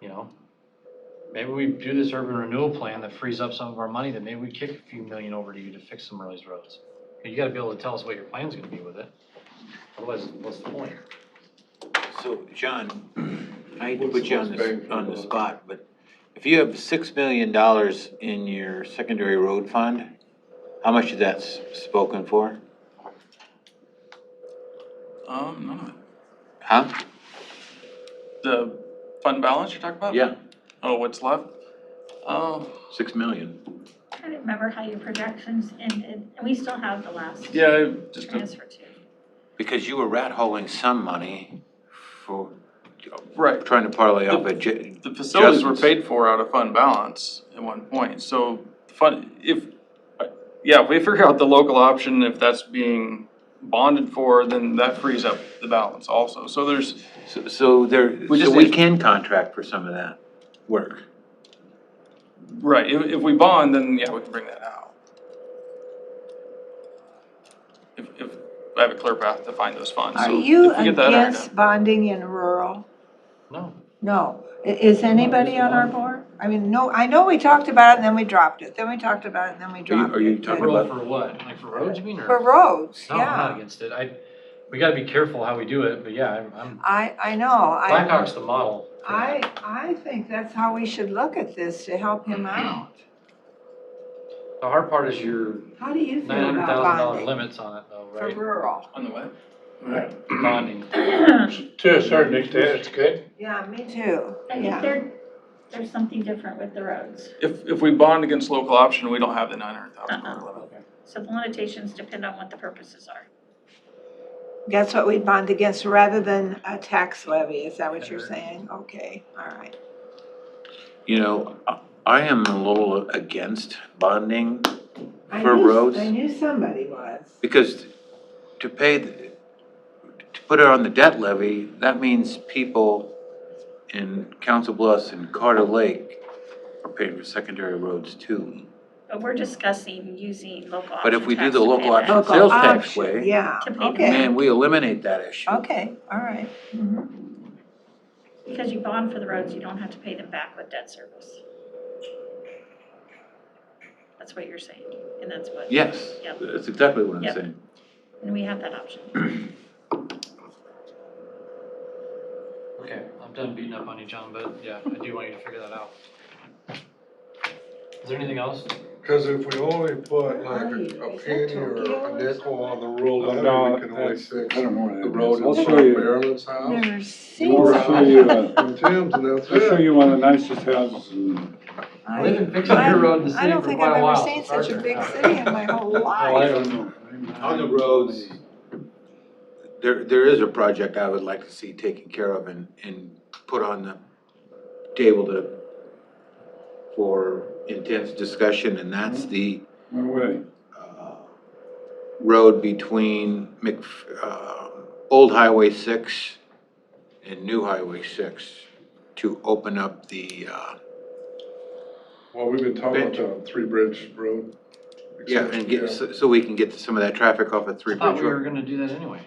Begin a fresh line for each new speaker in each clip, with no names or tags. you know? Maybe we do this urban renewal plan that frees up some of our money, then maybe we kick a few million over to you to fix some of these roads. You gotta be able to tell us what your plan's gonna be with it, otherwise, what's the point?
So, John, I hate to put you on the, on the spot, but if you have six million dollars in your secondary road fund, how much of that's spoken for?
Um, none of it.
Huh?
The fund balance you're talking about? Oh, what's left? Um,
Six million.
I don't remember how your projections ended, and we still have the last
yeah, I just,
transfer too.
Because you were rat holing some money for,
right.
trying to parlay off a j-
The facilities were
Adjustments.
paid for out of fund balance at one point, so fund, if, uh, yeah, if we figure out the local option, if that's being bonded for, then that frees up the balance also. So there's,
so, so there,
We
so
just
we
need-
can contract for some of that work.
right, if, if we bond, then yeah, we can bring that out. If, if, I have a clear path to find those funds,
Are
so
you
if we get that ironed out.
against bonding in rural?
No,
No. I- Is anybody on our board? I mean, no, I know we talked about it and then we dropped it, then we talked about it and then we dropped it.
are you
but-
talking
Rural
about-
for what, like for roads, you mean, or?
For roads,
No, I'm not
yeah.
against it, I, we gotta be careful how we do it, but yeah, I'm, I'm,
I, I know. I,
Blackhawk's the model. for that.
I, I think that's how we should look at this to help him out.
The hard part is your
How do you
nine
feel
hundred
about
thousand dollar
bonding
limits on it though,
for
right?
rural?
On the web?
Bonding.
To a certain extent, it's good.
Yeah, me too.
I
Yeah.
think there, there's something different with the roads.
If, if we bond against local option, we don't have the nine hundred thousand dollar limit.
So the limitations depend on what the purposes are.
That's what we'd bond against rather than a tax levy, is that what you're saying? Okay, all right.
You know, I- I am a little against bonding
I
for
knew-
roads.
I knew somebody was.
Because to pay, the- to put it on the debt levy, that means people in Council Bluffs and Carter Lake are paying for secondary roads too.
But we're discussing using local option
But if we do
tax
the
to
local
pay that.
option-
Local
Sales tax
option,
way.
Yeah,
To pay the
okay,
Man, we eliminate that issue.
okay, all right.
Mm-hmm.
Mhm.
Because you bond for the roads, you don't have to pay them back with debt service. That's what you're saying, and that's what,
Yes,
Yep.
that's exactly what I'm
Yep.
saying.
and we have that option.
Okay, I'm done beating up on you, John, but yeah, I do want you to figure that out. Is there anything else?
Cause if we only put
Where are
like
you?
a
Is
penny
that
or
Tokyo or
a nickel on the rural
Uh,
levy,
no,
we can only
that's-
fix
I don't know where
the
that
road
is.
in
I'll
front
show
of
you,
Marilyn's house.
Never
I'll
seen
Laura.
show
that.
you, uh,
And Tim's and that's
I'll show
it.
you one of the nicest houses in
They've
I
been fixing your road in the
I
city for
don't
quite
think
a
I've
while.
ever seen
so it's
such a
hard
big
to-
city in my whole
Oh, I
life.
don't know.
On the roads, there, there is a project I would like to see taken care of and, and put on the table to, for intense discussion, and that's the
No way.
uh, road between Mc, uh, Old Highway six and New Highway six to open up the, uh,
Well, we've been talking about the Three Bridge Road.
yeah, and
Yeah.
get, so so we can get some of that traffic off of Three
I thought
Bridge
we were
Road.
gonna do that anyway.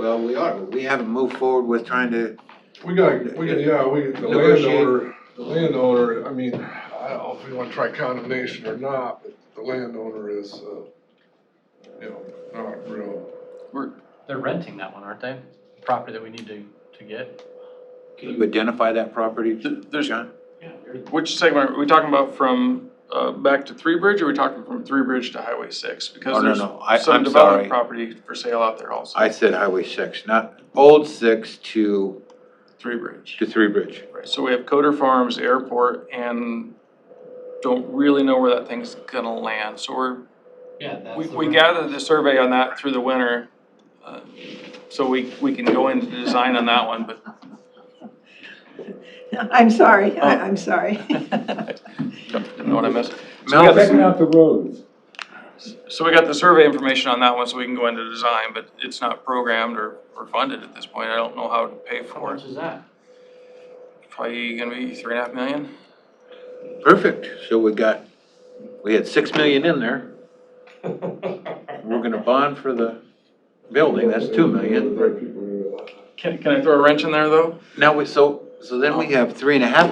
Well, we are, but we haven't moved forward with trying to,
We got, we got, yeah, we, the
Negotiate.
landowner, the landowner, I mean, I don't know if we wanna try condemnation or not, but the landowner is, uh, you know, not real.
They're renting that one, aren't they? Property that we need to, to get.
can you identify that property,
Th- There's,
John?
Yeah.
which segment, are we talking about from, uh, back to Three Bridge, or are we talking from Three Bridge to Highway six?
Oh,
Because
no,
there's
no, I-
some
I'm sorry.
development property for sale out there also,
I said Highway six, not Old six to,
Three Bridge.
to Three Bridge.
Right, so we have Coder Farms Airport, and don't really know where that thing's gonna land, so we're
Yeah, that's.
We,
the
we
rent.
gathered the survey on that through the winter, uh, so we, we can go into design on that one, but
I'm sorry,
Oh.
I- I'm sorry.
don't know what I missed. So we got
Checking
the-
out the roads.
So we got the survey information on that one, so we can go into design, but it's not programmed or, or funded at this point, I don't know how to pay
How
for it.
much is that?
Probably gonna be three and a half million?
Perfect, so we got, we had six million in there. We're gonna bond for the building, that's two million.
People, uh,
Can, can I throw a wrench in there, though?
Now, we so, so then we have three and a half